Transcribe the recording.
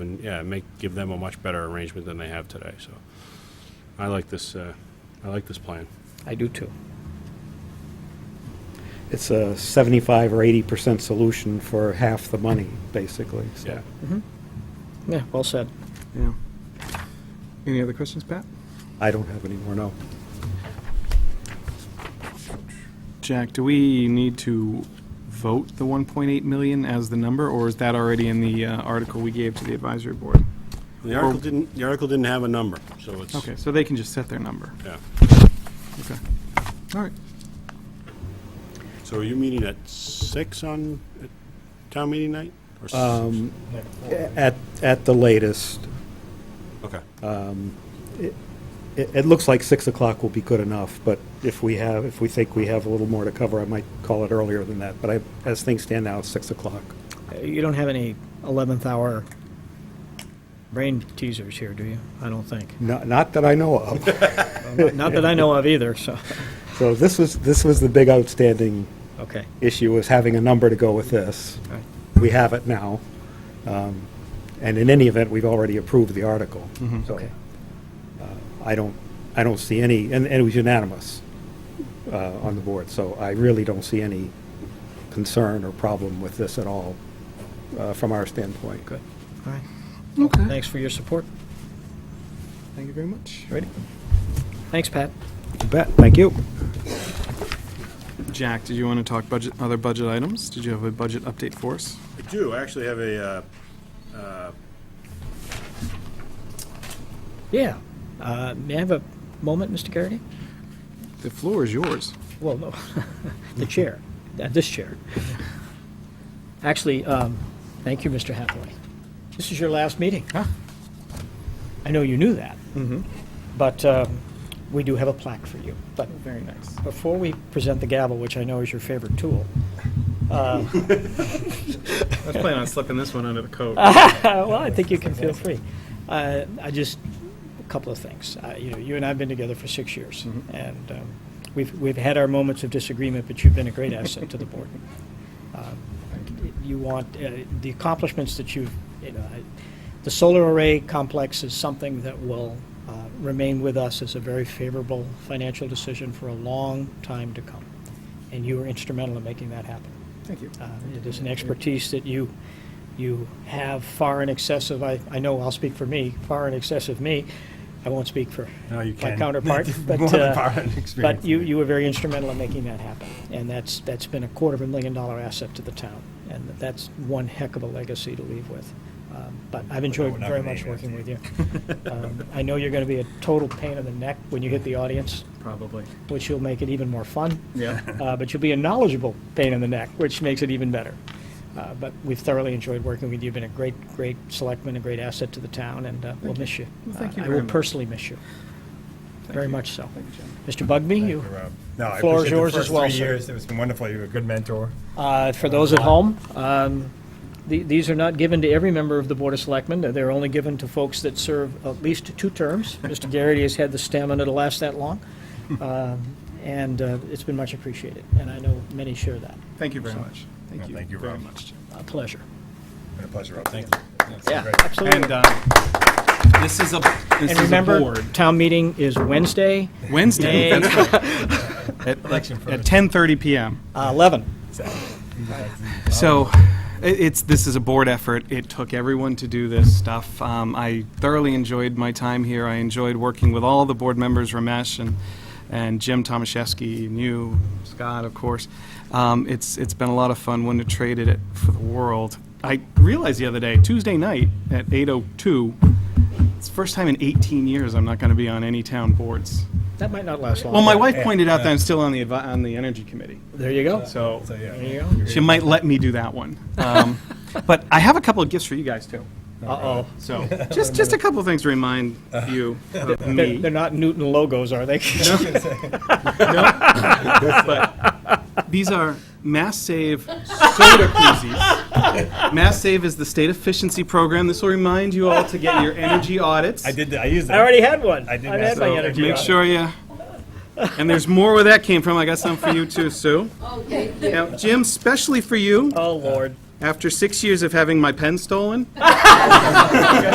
yeah, make, give them a much better arrangement than they have today, so. I like this, uh, I like this plan. I do too. It's a 75 or 80% solution for half the money, basically, so. Yeah. Yeah, well said. Yeah. Any other questions, Pat? I don't have any more, no. Jack, do we need to vote the 1.8 million as the number, or is that already in the uh, article we gave to the advisory board? The article didn't, the article didn't have a number, so it's, Okay, so they can just set their number. yeah. Okay. All right. So are you meeting at six on uh, town meeting night? Or s- Um, At, at the latest, Okay, uh, it, it looks like 6 o'clock will be good enough, but if we have, if we think we have a little more to cover, I might call it earlier than that, but I, as things stand now, it's 6 o'clock. Uh, You don't have any 11th hour brain teasers here, do you? I don't think. Not, not that I know of. Well, Not that I know of either, so, So this was, this was the big outstanding okay. issue, was having a number to go with this. All right. We have it now. Um, And in any event, we've already approved the article. So Mm-hmm. Okay. uh, I don't, I don't see any, and and it was unanimous uh, on the board, so I really don't see any concern or problem with this at all uh, from our standpoint. Good. All right. Okay. Thanks for your support. Thank you very much. Ready? Thanks, Pat. You bet, thank you. Jack, did you want to talk budget, other budget items? Did you have a budget update for us? I do, I actually have a, uh, Yeah. Uh, May I have a moment, Mr. Garrity? The floor is yours. Well, no, the chair, Uh, this chair. Actually, um, thank you, Mr. Hathaway. This is your last meeting. Huh? Mm-hmm. I know you knew that. But um, we do have a plaque for you. But Very nice. before we present the gavel, which I know is your favorite tool, uh, I was planning on slipping this one under the coat. Uh, well, I think you can feel free. Uh, I just a couple of things. Uh, you know, you and I've been together for six years, and um, we've we've had our moments of disagreement, but you've been a great asset to the board. Um, you want uh, the accomplishments that you've, you know, I, the solar array complex is something that will uh, remain with us as a very favorable financial decision for a long time to come, and you were instrumental in making that happen. Thank you. Uh, It is an expertise that you, you have far in excess of, I, I know I'll speak for me, far in excess of me. I won't speak for No, you my can. counterpart, but, More than uh, part of the experience. but you, you were very instrumental in making that happen. And that's, that's been a quarter of a million dollar asset to the town. And that's one heck of a legacy to leave with. Um, But I've enjoyed we're not very gonna much name it. working with you. Um, I know you're going to be a total pain in the neck when you hit the audience, Probably. which will make it even more fun Yeah. uh, but you'll be a knowledgeable pain in the neck, which makes it even better. Uh, But we've thoroughly enjoyed working with you. You've been a great, great selectman, a great asset to the town, and uh, we'll miss you. Well, thank Uh, you I very will much. personally miss you, very you. much so. Thank you, Jack. Mr. Bugby, you, No, I uh, floor is appreciate the yours as first well, three sir. years. It's been wonderful. You were a good mentor. uh, for those at home, um, the- these are not given to every member of the Board of Selectmen. They're only given to folks that serve at least two terms. Mr. Garrity has had the stamina to last that long, Um, and uh, it's been much appreciated, and I know many share that. Thank you very much. Thank Well, you. thank you, very Rob. much. Jack. A pleasure. Been a pleasure. Rob. Thank you. Yeah, great. absolutely. And um, this is a this And is a remember, board. town meeting is Wednesday, Wednesday. Yay. That's right. At, like, Election at first. 10:30 p.m. uh, 11. So i- it's, this is a board effort. It took everyone to do this stuff. Um, I thoroughly enjoyed my time here. I enjoyed working with all the board members, Ramesh and, and Jim Tomaszewski, and you, Scott, of course. Um, It's, it's been a lot of fun. Wouldn't have traded it for the world. I realized the other day, Tuesday night at 8:02, it's the first time in 18 years I'm not going to be on any town boards. That might not last long. Well, my wife pointed out that I'm still on the, advi- on the energy committee. There you go. So So, yeah. There you she might let me do that one. Um, but I have a couple of gifts for you guys too. go. Uh-oh. So just just a couple of things to remind Uh-huh. you of They're, me. they're not Newton logos, are they? These are Mass Save soda koozies. Mass Save is the state efficiency program. This will remind you all to get your energy audits. I did. that. I used it. I already had one. I did I've mess had my up. energy. Make audit. sure you. And there's more where that came from. I got some for you too, Sue. Okay. Now, Jim, specially for you, Oh, Lord. after six years of having my pen stolen,